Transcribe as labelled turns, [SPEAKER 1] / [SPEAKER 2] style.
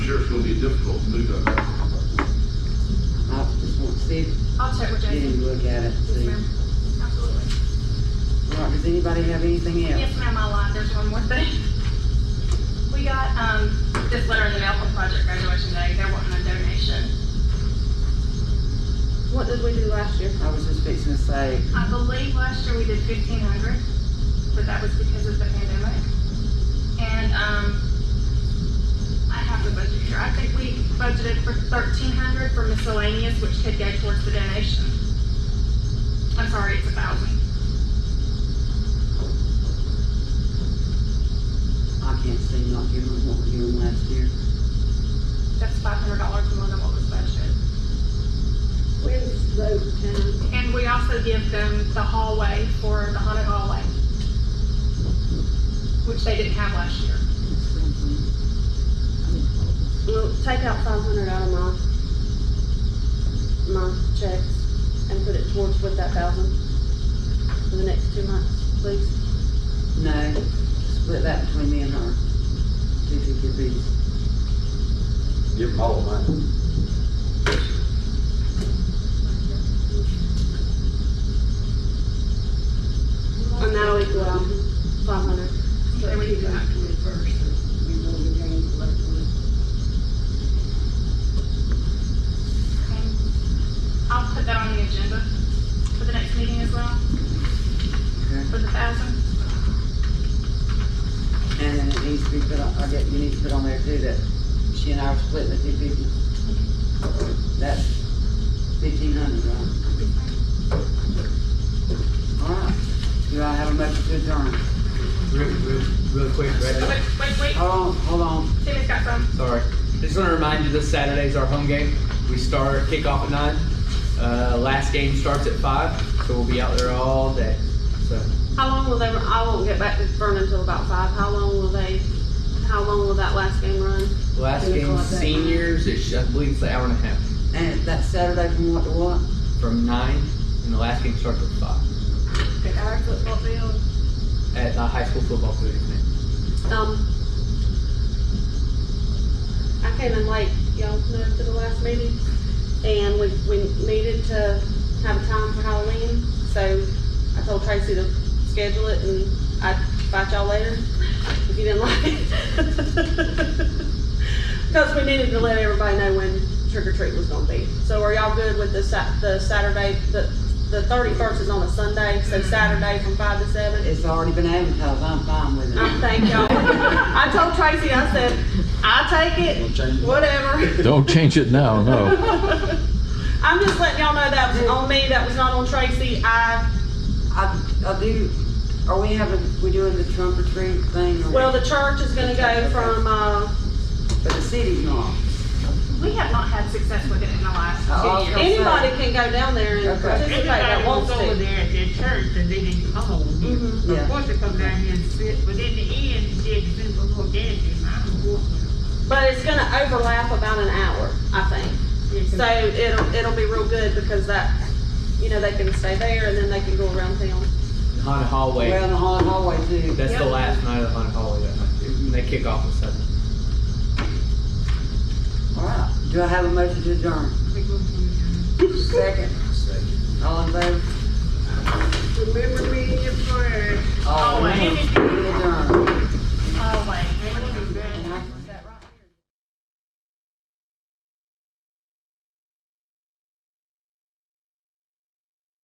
[SPEAKER 1] sure it's gonna be difficult to do that.
[SPEAKER 2] I just want to see, it.
[SPEAKER 3] I'll check with
[SPEAKER 2] get
[SPEAKER 3] Jesse.
[SPEAKER 2] him to look at it,
[SPEAKER 3] Yes,
[SPEAKER 2] see.
[SPEAKER 3] ma'am. Absolutely.
[SPEAKER 2] All right, does anybody have anything else?
[SPEAKER 3] Yes, ma'am, I lied. There's one more thing. We got, um, this letter in the mail from Project Graduation Day. They're wanting a donation.
[SPEAKER 4] What did we do last year?
[SPEAKER 2] I was just fixing to say,
[SPEAKER 3] I believe last year we did fifteen hundred, but that was because of the pandemic. And, um, I have the budget here. I think we budgeted for thirteen hundred for miscellaneous, which could go towards the donation. I'm sorry, it's a thousand.
[SPEAKER 2] I can't see not giving them what we gave them last year.
[SPEAKER 3] That's five hundred dollars more than what was budgeted.
[SPEAKER 4] When's vote time?
[SPEAKER 3] And we also give them the hallway for the haunted hallway, which they didn't have last year.
[SPEAKER 4] Well, take out five hundred out of my, my checks and put it towards with that thousand for the next two months, please.
[SPEAKER 2] No, split that between me and her. Do you think it'd be,
[SPEAKER 5] Give them all mine.
[SPEAKER 4] And that'll equal out five hundred.
[SPEAKER 3] There we go. Okay. I'll put that on the agenda for the next meeting as well,
[SPEAKER 2] okay?
[SPEAKER 3] for the thousand.
[SPEAKER 2] And then it needs to be put on, I get, you need to put on there too that she and I are splitting the two fifty. That's fifteen hundred, right? Alright, do I have a motion to adjourn?
[SPEAKER 6] Real, real, real quick,
[SPEAKER 3] Wait,
[SPEAKER 6] right?
[SPEAKER 3] wait, wait,
[SPEAKER 2] Hold on, hold on,
[SPEAKER 3] Timmy's got some.
[SPEAKER 6] Sorry. Just want to remind you, this Saturday's our home game. We start kickoff at nine. Uh, last game starts at five, so we'll be out there all day. So
[SPEAKER 4] How long will they, I won't get back to Vernon until about five. How long will they, how long will that last game run?
[SPEAKER 6] last
[SPEAKER 4] Can we call
[SPEAKER 6] game,
[SPEAKER 4] it that?
[SPEAKER 6] seniors, is, I believe it's an hour and a half
[SPEAKER 2] and that's Saturday from what to what?
[SPEAKER 6] from nine, and the last game starts at five
[SPEAKER 4] At our football field.
[SPEAKER 6] at the high school football field. man.
[SPEAKER 4] Um, I came in late, y'all know, to the last meeting, and we, we needed to have a time for Halloween, so I told Tracy to schedule it, and I'd fight y'all later if you didn't like it. Because we needed to let everybody know when trick or treat was gonna be. So are y'all good with the Sat, the Saturday, the, the thirty-first is on a Sunday, so Saturday from five to seven?
[SPEAKER 2] It's already been advertised, I'm fine with
[SPEAKER 4] I
[SPEAKER 2] it.
[SPEAKER 4] thank y'all. I told Tracy, I said, I take it, whatever.
[SPEAKER 7] Don't change it now, no.
[SPEAKER 4] I'm just letting y'all know that was on me, that was not on Tracy. I,
[SPEAKER 2] I, I do, are we having, we doing the trunk or treat thing? or-
[SPEAKER 4] well, the church is gonna go from, uh,
[SPEAKER 2] But the city's not.
[SPEAKER 3] We have not had success with it in the last
[SPEAKER 2] Oh,
[SPEAKER 3] two years.
[SPEAKER 2] okay.
[SPEAKER 4] anybody can go down there and
[SPEAKER 2] Okay.
[SPEAKER 4] participate that
[SPEAKER 8] Everybody was
[SPEAKER 4] wants
[SPEAKER 8] over
[SPEAKER 4] to.
[SPEAKER 8] there at their church and they didn't come over here.
[SPEAKER 4] Mhm.
[SPEAKER 2] Yeah.
[SPEAKER 8] Of course they come down here and sit, but in the end, they did sit before dancing, I don't know.
[SPEAKER 4] But it's gonna overlap about an hour, I think. So it'll, it'll be real good because that, you know, they can stay there and then they can go around town.
[SPEAKER 6] The haunted hallway.
[SPEAKER 2] We're in the hall- hallway too.
[SPEAKER 6] that's
[SPEAKER 3] Yep.
[SPEAKER 6] the last night of the haunted hallway that night. too, And they kick off at seven.
[SPEAKER 2] Alright, do I have a motion to adjourn?
[SPEAKER 8] They go from there.
[SPEAKER 2] Second. All in favor?
[SPEAKER 8] Remember me in your prayers.
[SPEAKER 2] All in favor? We adjourn.